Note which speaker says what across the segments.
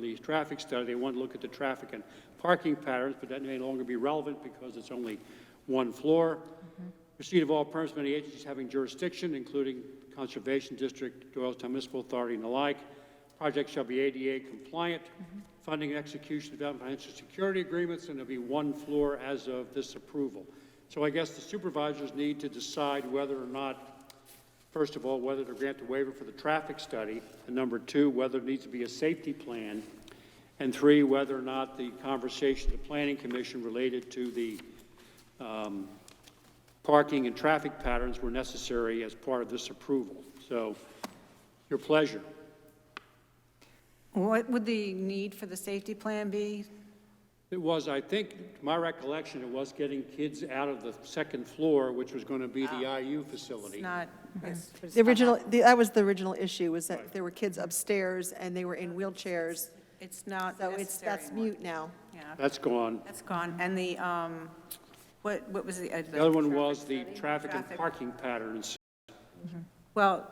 Speaker 1: the traffic study, they want to look at the traffic and parking patterns, but that may no longer be relevant because it's only one floor. Receipt of all permits from any agencies having jurisdiction, including Conservation District, Doylestown Municipal Authority, and the like. Project shall be ADA compliant. Funding and execution of financial security agreements, and there'll be one floor as of this approval. So I guess the supervisors need to decide whether or not First of all, whether to grant the waiver for the traffic study, and number two, whether there needs to be a safety plan, and three, whether or not the conversation, the planning commission related to the um, parking and traffic patterns were necessary as part of this approval. So, your pleasure.
Speaker 2: What would the need for the safety plan be?
Speaker 1: It was, I think, to my recollection, it was getting kids out of the second floor, which was going to be the Mhm. IU
Speaker 2: It's
Speaker 1: facility.
Speaker 2: not,
Speaker 3: The original, the- that was the original issue, was that there were kids upstairs and they were in wheelchairs.
Speaker 2: it's not
Speaker 3: So it's,
Speaker 2: necessary
Speaker 3: that's
Speaker 2: anymore.
Speaker 3: mute now.
Speaker 2: Yeah,
Speaker 1: That's gone.
Speaker 2: that's gone. And the, um, what, what was the? uh,
Speaker 1: The other one was the traffic and
Speaker 2: Traffic.
Speaker 1: parking patterns.
Speaker 2: Well,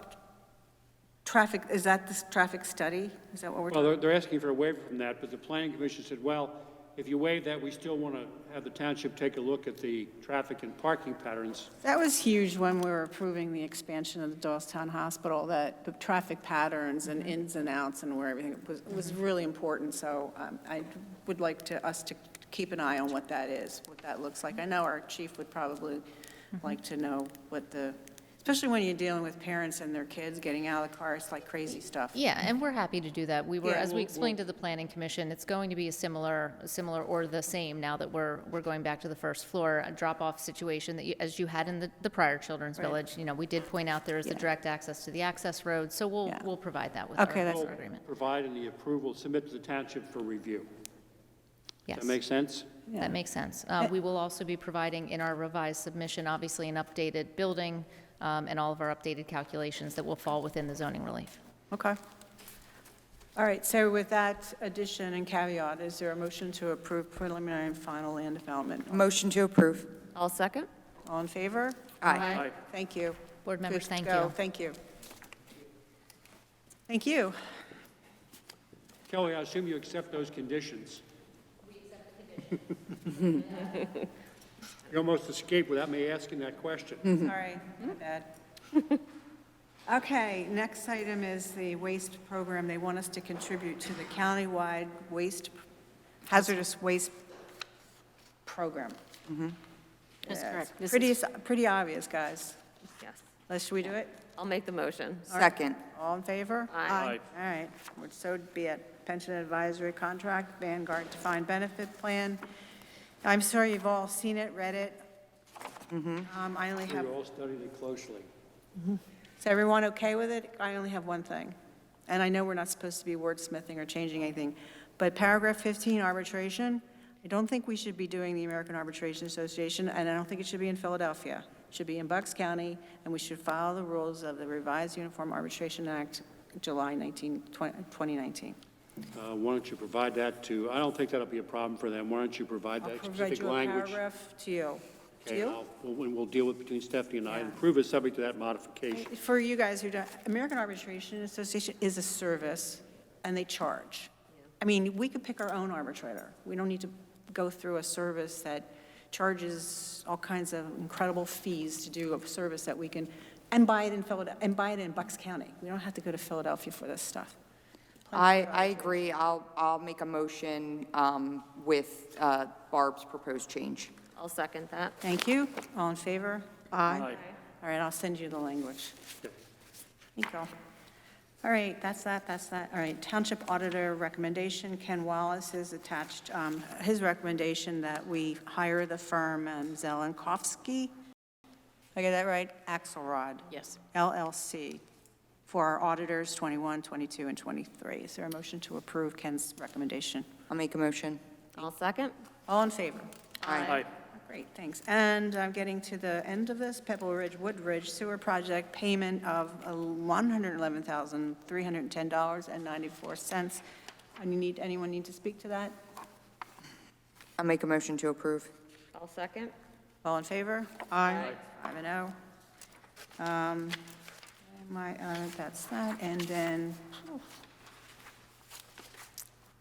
Speaker 2: traffic, is that this traffic study? Is that what we're
Speaker 1: Well,
Speaker 2: talking?
Speaker 1: they're, they're asking for a waiver from that, but the planning commission said, well, if you waive that, we still want to have the township take a look at the traffic and parking patterns.
Speaker 4: That was huge when we were approving the expansion of the Doylestown Hospital, that the traffic patterns and ins and outs and where everything was, was really important. So um, I would like to, us to keep an eye on what that is, what that looks like. I know our chief would probably
Speaker 5: Mm-hmm.
Speaker 4: like to know what the, especially when you're dealing with parents and their kids getting out of the car, it's like crazy stuff.
Speaker 5: Yeah, and we're happy to do that. We were,
Speaker 2: Yeah,
Speaker 5: as
Speaker 2: we'll-
Speaker 5: we explained to the planning commission, it's going to be a similar, similar or the same now that we're, we're going back to the first floor, a drop-off situation that you, as you had in the, the prior Children's Village. You know, we did point out there is a direct access to the access road, so we'll,
Speaker 2: Yeah.
Speaker 5: we'll provide that with our
Speaker 2: Okay, that's
Speaker 5: our
Speaker 2: great.
Speaker 5: agreement.
Speaker 1: Provide any approval, submit to the township for review.
Speaker 5: Yes.
Speaker 1: That makes sense?
Speaker 5: That makes sense. Uh, We will also be providing in our revised submission, obviously, an updated building um, and all of our updated calculations that will fall within the zoning relief.
Speaker 2: Okay. All right, so with that addition and caveat, is there a motion to approve preliminary and final land development?
Speaker 6: Motion to approve.
Speaker 7: I'll second.
Speaker 2: All in favor?
Speaker 5: Aye.
Speaker 2: Thank you.
Speaker 5: Board members,
Speaker 2: Good to
Speaker 5: thank
Speaker 2: go.
Speaker 5: you.
Speaker 2: Thank you. Thank you.
Speaker 1: Kelly, I assume you accept those conditions? We accept the conditions. You almost escaped without me asking that question.
Speaker 2: Mm. Sorry, my bad. Okay, next item is the waste program. They want us to contribute to the countywide waste, hazardous waste program.
Speaker 7: That's
Speaker 2: Yeah,
Speaker 7: correct.
Speaker 2: it's
Speaker 7: This
Speaker 2: Pretty,
Speaker 7: is-
Speaker 2: pretty obvious, guys.
Speaker 7: Yes.
Speaker 2: Let's, should we do it?
Speaker 7: I'll make the motion.
Speaker 6: Second.
Speaker 2: All in favor?
Speaker 7: Aye.
Speaker 2: All right, Would so be it. Pension Advisory Contract, Vanguard Defined Benefit Plan. I'm sure you've all seen it, read it. Um, I only
Speaker 1: We
Speaker 2: have,
Speaker 1: all studied it closely.
Speaker 2: is everyone okay with it? I only have one thing. And I know we're not supposed to be wordsmithing or changing anything, but paragraph 15, arbitration, I don't think we should be doing the American Arbitration Association, and I don't think it should be in Philadelphia. It should be in Bucks County, and we should follow the rules of the revised Uniform Arbitration Act, July 19, 2019.
Speaker 1: Uh, Why don't you provide that to, I don't think that'll be a problem for them. Why don't you provide
Speaker 2: I'll
Speaker 1: that
Speaker 2: provide
Speaker 1: specific
Speaker 2: you a
Speaker 1: language?
Speaker 2: paragraph to you. To
Speaker 1: Okay, and
Speaker 2: you?
Speaker 1: I'll- we'll- and we'll deal with between Stephanie and I, and approve it subject to that modification.
Speaker 2: For you guys who don't, American Arbitration Association is a service, and they charge. I mean, we could pick our own arbitrator. We don't need to go through a service that charges all kinds of incredible fees to do a service that we can, and buy it in Philadelphia, and buy it in Bucks County. We don't have to go to Philadelphia for this stuff.
Speaker 6: I, I agree. I'll, I'll make a motion um, with uh, Barb's proposed change.
Speaker 7: I'll second that.
Speaker 2: Thank you. All in favor?
Speaker 1: Aye.
Speaker 2: All right, I'll send you the language. Thank you. All right, that's that, that's that. All right, Township Auditor recommendation, Ken Wallace is attached, um, his recommendation that we hire the firm um, Zelenkovsky, I get that right? Axelrod
Speaker 7: Yes.
Speaker 2: LLC for our auditors 21, 22, and 23. Is there a motion to approve Ken's recommendation?
Speaker 6: I'll make a motion.
Speaker 7: I'll second.
Speaker 2: All in favor?
Speaker 6: Aye.
Speaker 2: Great, thanks. And I'm getting to the end of this, Pebble Ridge Woodridge Sewer Project payment of $111,310.94. And you need, anyone need to speak to that?
Speaker 6: I'll make a motion to approve.
Speaker 7: I'll second.
Speaker 2: All in favor? Aye. Five and oh. Um, My, uh, that's that, and then, oh,